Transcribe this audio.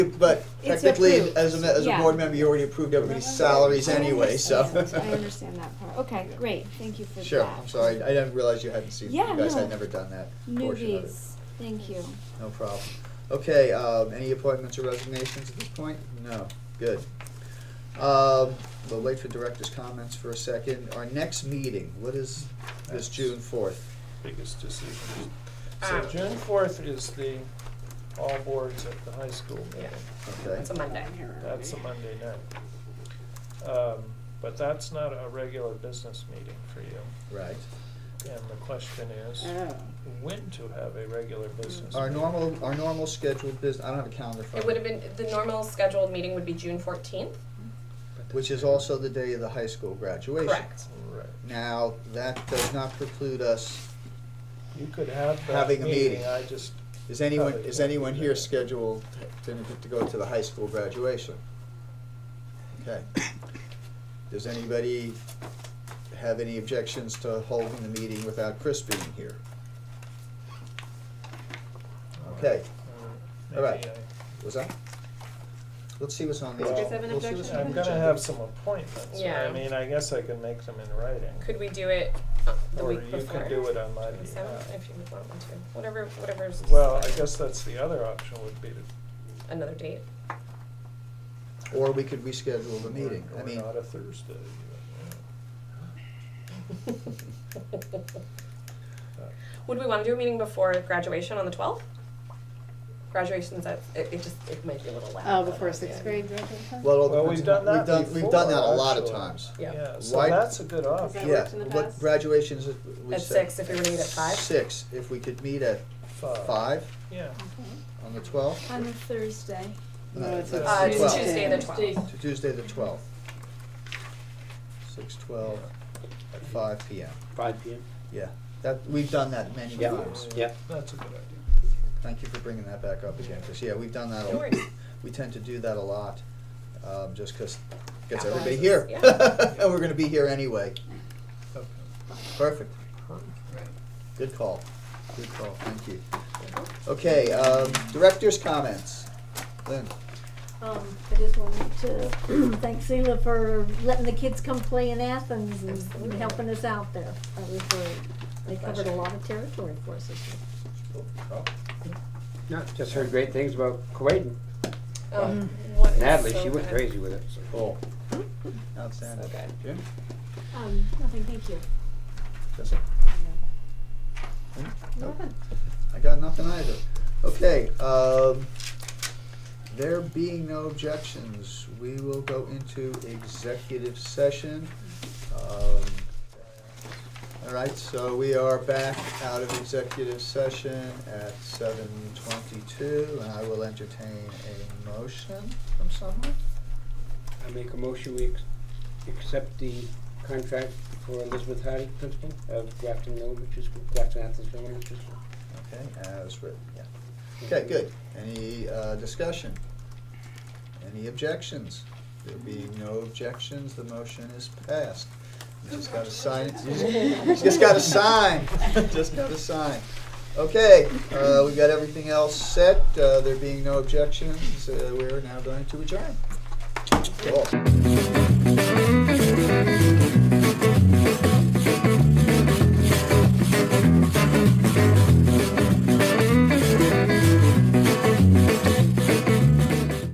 But It's technically, approved, as a, as a yeah. board member, you already approved everybody's salaries anyway, so. I understand that part. Okay, great, thank you for that. Sure, I'm sorry, I didn't realize you hadn't seen, you Yeah, guys no. had never done that portion of it. Newbies, thank you. No problem. Okay, um, any appointments or resignations at this point? No, good. Um, we'll wait for director's comments for a second. Our next meeting, what is this That's- June fourth? biggest decision. Ah. So June fourth is the all boards at the high school meeting. Okay, It's a Monday. That's a Monday night. Um, But that's not a regular business meeting for you. right. And the question is, Oh. when to have a regular business? Our meeting? normal, our normal scheduled business, I don't have a calendar for It would have been, the normal scheduled meeting would be June fourteenth, Which is also the day of the high school graduation. correct? Right. Now, that does not preclude us, You could have that Having a meeting. meeting, I just, mm, is anyone, Probably is can't anyone do here that. scheduled to, to go to the high school graduation? Okay. Does anybody have any objections to holding the meeting without Chris being here? Okay, mm, All right. maybe was that? Let's see what's on the. Did you guys have an we'll see what's I- on objection? I'm the gonna agenda. have some appointments. I Yeah. mean, I guess I could make them in writing. Could we do it uh, the Or week you before? could do it on my The seventh, behalf. if you would want me to, whatever, whatever's. Well, I guess that's the other option would be to Another date. Or we could reschedule the meeting, Or- I or mean, not a Thursday. Would we wanna do a meeting before graduation on the twelfth? Graduation's at, it, it just, it might be a little loud. Oh, but before that's sixth it. grade graduation? well, Well, we've done that we've done, we've done that a before, lot of actually. times. Yeah. Yeah, so Why- that's a good that option. Yeah, worked in the what past? graduations, is- we At said- six, if we were to meet at five? Six, if we could meet at Five. five Yeah, on the twelfth. On a Thursday. No, it's a Uh, it's Well- Tuesday the twelfth. To Tuesday, the twelfth. Six twelve at five P M. Five PM? Yeah, that, we've done that many Yeah. times. Yeah. that's a good idea. Thank you for bringing that back up again, because, yeah, we've done that, No a worries. we tend to do that a lot, um, just because, gets Appetizers, everybody here. yeah. And we're gonna be here anyway. Perfect. Good call, good call, thank you. Okay, um, director's comments. Lynn? Um, I just wanted to thank Sheila for letting the kids come play in Athens and Absolutely. helping us out there. uh, That was great. They covered a lot of territory for us. this year. No, just heard great things about Kuwait and Um, what is Natalie, so she went good. crazy with it, so. uh, Cool. So Outstanding. good. Jim? Um, nothing, thank you. Jessica? Nope. I got nothing either. Okay, um, there being no objections, we will go into executive session. Um, All right, so we are back out of executive session at seven twenty-two, and I will entertain a motion from someone. I make a motion, we ex- accept the contract for Elizabeth Hardy, principal of Grafton Elementary School, Grafton Athens Elementary School. Okay, as written, yeah. Okay, good. Any uh, discussion? Any objections? There being no objections, the motion is passed. You just gotta sign it. You just- Just gotta sign. Just gotta sign. Okay, uh, we got everything else set. Uh, There being no objections, uh, we're now going to adjourn. Cool.